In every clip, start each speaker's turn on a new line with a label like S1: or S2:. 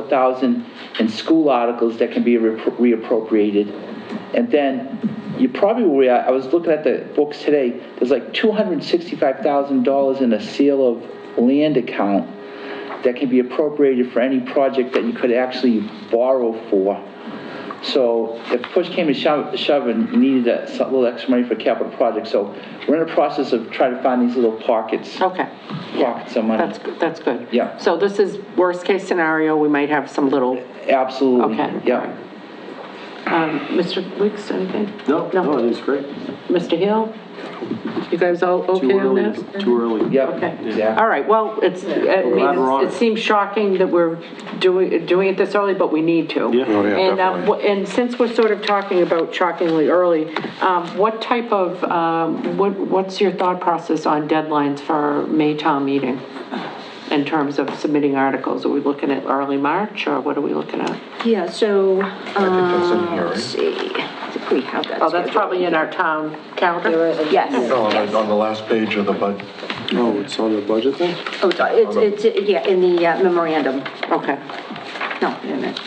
S1: 84,000 in school articles that can be reappro- reappropriated. And then you probably were, I was looking at the books today, there's like $265,000 in a sale of land account that can be appropriated for any project that you could actually borrow for. So if push came to shove, shove and you needed that some little extra money for capital projects, so we're in the process of trying to find these little pockets,
S2: Okay,
S1: pockets of money.
S2: that's, good. that's good.
S1: Yeah.
S2: So this is worst-case scenario, we might have some little,
S1: Absolutely,
S2: okay.
S1: yeah.
S2: Um, Mr. Weeks, anything?
S3: No, no, it is great.
S2: Mr. Hill? You guys all
S3: Too
S2: okay on
S3: early,
S2: this?
S3: too early.
S1: Yep.
S2: Okay.
S1: Yeah.
S2: All right, well, it's, I mean,
S3: Glad we're on
S2: it's-
S3: it.
S2: it seems shocking that we're doing, doing it this early, but we need to.
S3: Yeah. Oh,
S4: yeah,
S2: And, uh,
S4: definitely.
S2: wh- and since we're sort of talking about shockingly early, um, what type of, um, what, what's your thought process on deadlines for May town meeting? In terms of submitting articles, are we looking at early March, or what are we looking at?
S5: Yeah, so,
S4: that's in
S5: uh,
S4: here, right?
S5: let's see, I think we have that.
S2: Oh, that's
S5: scheduled.
S2: probably in our town calendar.
S5: Yes,
S4: No, on the, on the last page of the budget.
S3: Oh, it's on the budget thing?
S5: oh, it's- it's, it's, yeah, in the uh, memorandum,
S2: Okay,
S5: no, wait a minute.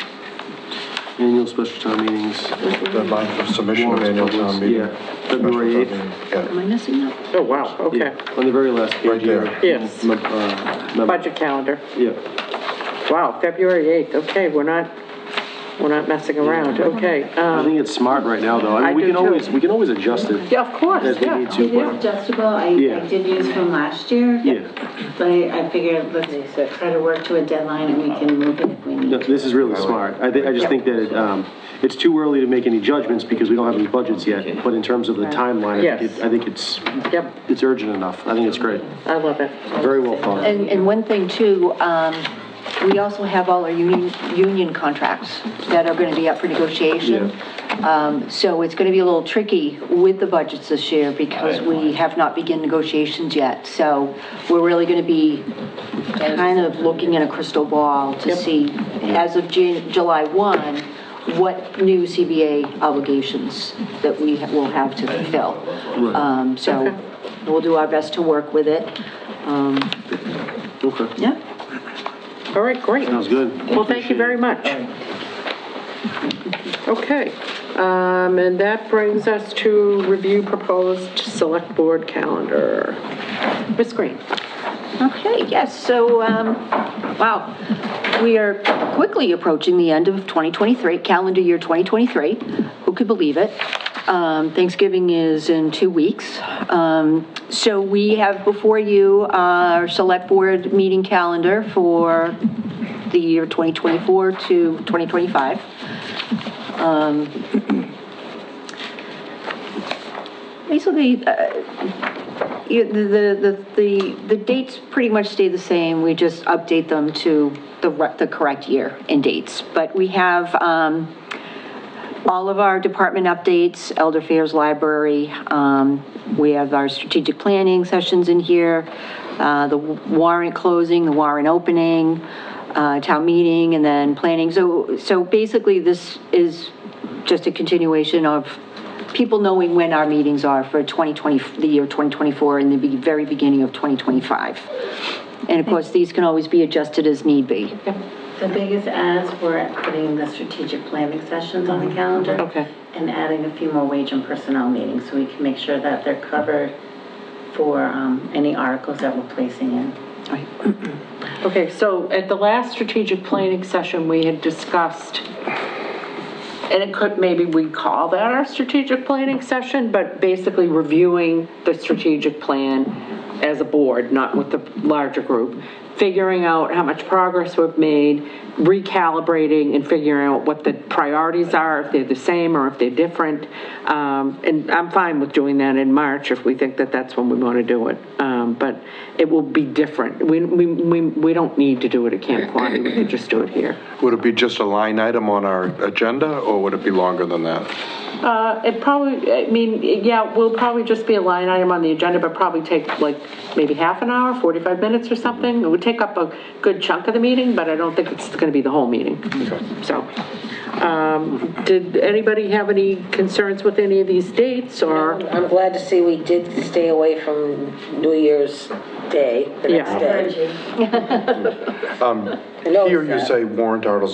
S3: Annual special town meetings.
S4: deadline for submission of annual town meeting.
S3: Yeah, February
S4: Special
S3: 8th.
S4: town
S5: am
S4: meeting,
S5: I missing that?
S2: oh, wow, okay.
S3: Yeah, On the very last page.
S4: Right there.
S3: here.
S2: Yes.
S3: Mem- uh, mem-
S2: Budget calendar.
S3: Yeah,
S2: Wow, February 8th, okay, we're not, we're not messing around, okay.
S3: I
S2: um,
S3: think it's smart right now, though.
S2: I
S3: mean, we
S2: do
S3: can
S2: too.
S3: always We can always adjust it.
S2: Yeah, of course,
S3: As we
S2: yeah.
S3: need to, but,
S6: adjustable, I,
S3: Yeah.
S6: I did use from last year.
S3: yeah.
S6: But I, I figured let's try to work to a deadline and we can move it if we need
S3: No, This is really smart. I think, I just think that it, um, it's too early to make any judgments because we don't have any budgets yet. But in terms of the timeline, I think
S2: Yes.
S3: it- I think it's,
S2: Yep,
S3: it's urgent enough. I think it's great.
S2: I love it.
S3: Very well thought.
S5: And, and one thing too, um, we also have all our union, union contracts that are gonna be up for negotiation. Um, so it's gonna be a little tricky with the budgets this year because we have not begun negotiations yet. So we're really gonna be kind of looking in a crystal ball to see, as of Jan, July one, what new CBA obligations that we ha- will have to fulfill. Um, so we'll do our best to work with it. Um,
S3: Okay.
S5: yeah.
S2: All right, great.
S3: Sounds good.
S2: Well, thank you very much. Okay, um, and that brings us to review proposed select board calendar. Ms. Green?
S5: Okay, yes, so, um, wow, we are quickly approaching the end of 2023, calendar year 2023. Who could believe it? Um, Thanksgiving is in two weeks. Um, So we have before you our select board meeting calendar for the year 2024 to 2025. Um, Basically, uh, you- The, the, the, the dates pretty much stay the same, we just update them to the, re- the correct year and dates. But we have, um, all of our department updates, Elder Affairs Library, um, we have our strategic planning sessions in here, uh, the warrant closing, the warrant opening, uh, town meeting, and then planning. So, so basically, this is just a continuation of people knowing when our meetings are for 2020, the year 2024 and the be- very beginning of 2025. And of course, these can always be adjusted as need be.
S6: The biggest adds were putting the strategic planning sessions on the calendar.
S2: Okay.
S6: And adding a few more wage and personnel meetings so we can make sure that they're covered for, um, any articles that we're placing in.
S2: Okay, so at the last strategic planning session, we had discussed, and it could, maybe we call that our strategic planning session, but basically reviewing the strategic plan as a board, not with the larger group, figuring out how much progress we've made, recalibrating and figuring out what the priorities are, if they're the same or if they're different. Um, And I'm fine with doing that in March if we think that that's when we want to do it. Um, But it will be different. We, we, we we don't need to do it at Camp Quaney, we can just do it here.
S4: Would it be just a line item on our agenda, or would it be longer than that?
S2: Uh, it probably, I mean, yeah, will probably just be a line item on the agenda, but probably take like maybe half an hour, 45 minutes or something. It would take up a good chunk of the meeting, but I don't think it's going to be the whole meeting. So, Um, Did anybody have any concerns with any of these dates, or?
S7: I'm glad to see we did stay away from New Year's Day, the next
S2: Yeah.
S7: day.
S6: Virgie.
S7: I know
S4: Here
S7: it's
S4: Um, you
S7: that.
S4: say warrant articles